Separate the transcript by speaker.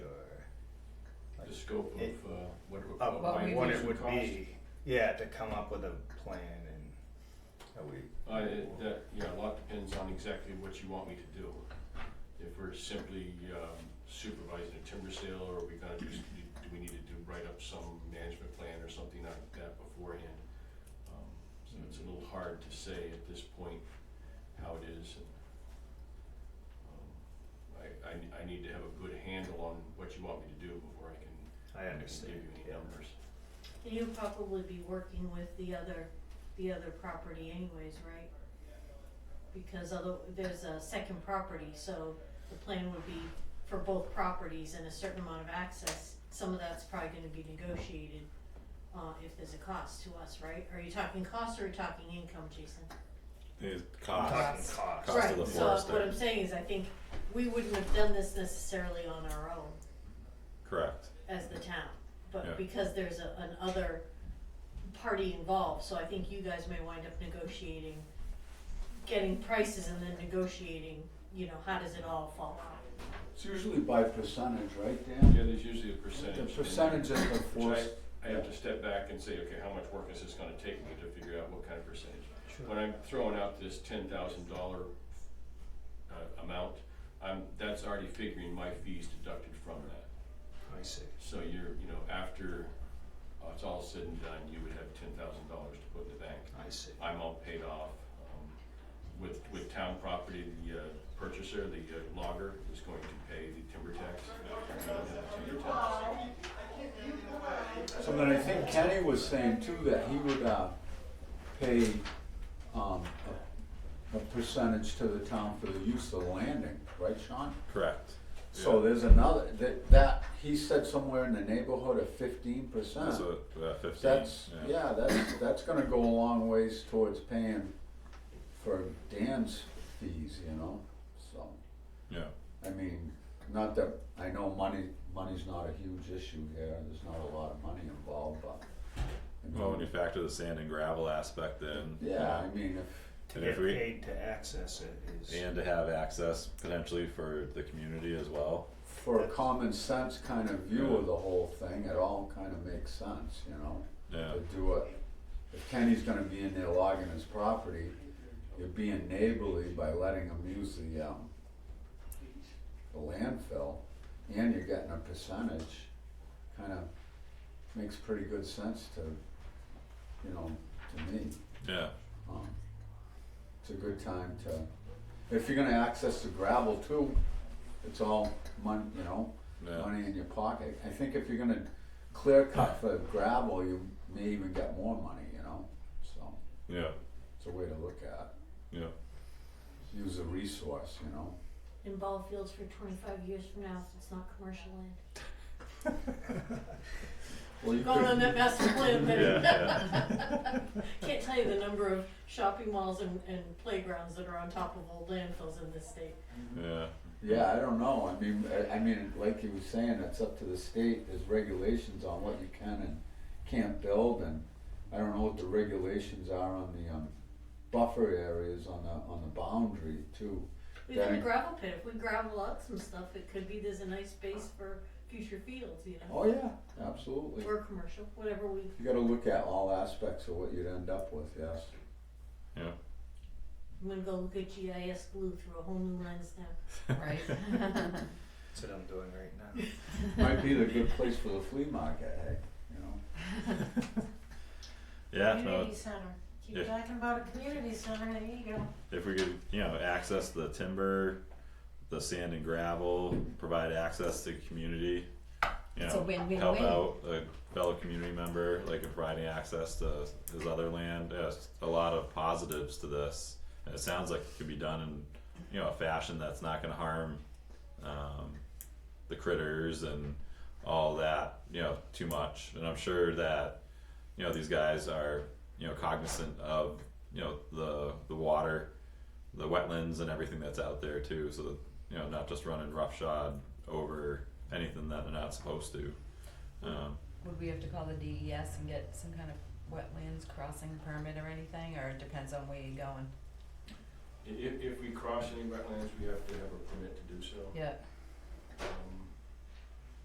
Speaker 1: scope of,
Speaker 2: It-
Speaker 1: uh, what it would.
Speaker 2: of
Speaker 3: What we
Speaker 2: what
Speaker 3: would
Speaker 2: it would
Speaker 1: cost.
Speaker 2: be, yeah, to come up with a plan and that we.
Speaker 1: Uh, it- that, yeah, a lot depends on exactly what you want me to do. If we're simply um, supervising a timber sale, or are we gonna do, s- do we need to do, write up some management plan or something like that beforehand? Um, So it's a little hard to say at this point how it is and. um, I, I, I need to have a good handle on what you want me to do before I can
Speaker 2: I
Speaker 1: I can give
Speaker 2: understand,
Speaker 1: you any
Speaker 2: yeah.
Speaker 1: numbers.
Speaker 4: And you'll probably be working with the other, the other property anyways, right? Because although there's a second property, so the plan would be for both properties and a certain amount of access. Some of that's probably gonna be negotiated, uh, if there's a cost to us, right? Are you talking cost or are you talking income, Jason?
Speaker 5: Is
Speaker 2: I'm
Speaker 5: cost.
Speaker 2: talking
Speaker 3: Cost.
Speaker 2: cost.
Speaker 5: Cost of the forest
Speaker 4: Right, so what
Speaker 5: there.
Speaker 4: I'm saying is I think we wouldn't have done this necessarily on our own.
Speaker 5: Correct.
Speaker 4: as the town,
Speaker 5: Yeah.
Speaker 4: but because there's a, an other party involved, so I think you guys may wind up negotiating, getting prices and then negotiating, you know, how does it all fall out?
Speaker 6: It's usually by percentage, right,
Speaker 1: Yeah,
Speaker 6: Dan?
Speaker 1: there's usually a percentage.
Speaker 6: The
Speaker 1: in there.
Speaker 6: percentage of the
Speaker 1: Which
Speaker 6: force.
Speaker 1: I, I have to step back and say, okay, how much work is this gonna take me to figure out what kind of percentage? When I'm throwing out this ten thousand dollar, uh, amount, I'm, that's already figuring my fees deducted from that.
Speaker 2: I see.
Speaker 1: So you're, you know, after, uh, it's all said and done, you would have ten thousand dollars to put in the bank.
Speaker 2: I see.
Speaker 1: I'm all paid off. Um, With, with town property, the uh, purchaser, the uh, logger is going to pay the timber tax. We don't have timber tax.
Speaker 6: So then I think Kenny was saying too that he would, uh, pay, um, a, a percentage to the town for the use of the landing, right, Sean?
Speaker 5: Correct.
Speaker 6: So
Speaker 5: Yeah.
Speaker 6: there's another, that, that, he said somewhere in the neighborhood of fifteen percent.
Speaker 5: That's a uh, fifteen.
Speaker 6: That's,
Speaker 5: yeah.
Speaker 6: yeah, that's, that's gonna go a long ways towards paying for Dan's fees, you know, so.
Speaker 5: Yeah.
Speaker 6: I mean, not that, I know money, money's not a huge issue here, there's not a lot of money involved, but. I mean,
Speaker 5: Well, when you factor the sand and gravel aspect in.
Speaker 6: Yeah, I mean, if,
Speaker 2: To
Speaker 5: And if
Speaker 2: get
Speaker 5: we-
Speaker 2: paid to access it is.
Speaker 5: And to have access potentially for the community as well.
Speaker 6: for a common sense kind of view of the whole thing, it all kind of makes sense, you know?
Speaker 5: Yeah.
Speaker 6: To do it, if Kenny's gonna be in there logging his property, you're being neighborly by letting him use the, um, the landfill, and you're getting a percentage, kinda makes pretty good sense to, you know, to me.
Speaker 5: Yeah.
Speaker 6: Um, It's a good time to, if you're gonna access the gravel too, it's all money, you know,
Speaker 5: Yeah.
Speaker 6: money in your pocket. I think if you're gonna clear cut for gravel, you may even get more money, you know, so
Speaker 5: Yeah.
Speaker 6: it's a way to look at,
Speaker 5: Yeah.
Speaker 6: it. use a resource, you know.
Speaker 4: In ball fields for twenty-five years from now, if it's not commercial land.
Speaker 6: Well, you
Speaker 4: Going on that
Speaker 6: could,
Speaker 4: master plan, but
Speaker 5: Yeah,
Speaker 4: can't tell you the number of shopping malls and, and playgrounds that are on top of old landfills in this state.
Speaker 5: Yeah.
Speaker 6: yeah, I don't know, I mean, I, I mean, like you were saying, it's up to the state, there's regulations on what you can and can't build and I don't know what the regulations are on the, um, buffer areas on the, on the boundary too.
Speaker 4: We've got a
Speaker 6: Danny?
Speaker 4: gravel pit, if we gravel out some stuff, it could be there's a nice space for future fields, you know?
Speaker 6: Oh, yeah, absolutely.
Speaker 4: Or commercial, whatever we
Speaker 6: You gotta look at all aspects of what you'd end up with, yes.
Speaker 5: Yeah.
Speaker 4: I'm gonna go look at GIS glue through a whole new lens now.
Speaker 3: right?
Speaker 2: That's what I'm doing right now.
Speaker 6: Might be the good place for the flea market, hey, you know?
Speaker 5: Yeah. No,
Speaker 3: Community center,
Speaker 5: Yeah.
Speaker 3: keep talking about a community center, there you go.
Speaker 5: if we could, you know, access the timber, the sand and gravel, provide access to the community. You
Speaker 3: It's
Speaker 5: know,
Speaker 3: a win-win-win.
Speaker 5: help out a fellow community member, like providing access to his other land. There's a lot of positives to this. And it sounds like it could be done in, you know, a fashion that's not gonna harm um the critters and all that, you know, too much. And I'm sure that, you know, these guys are, you know, cognizant of, you know, the the water, the wetlands and everything that's out there too, so that, you know, not just running roughshod over anything that they're not supposed to. Um
Speaker 7: Would we have to call the DES and get some kind of wetlands crossing permit or anything, or it depends on where you're going?
Speaker 1: I- If, if we cross any wetlands, we have to have a permit to do so. Um,
Speaker 7: Yeah,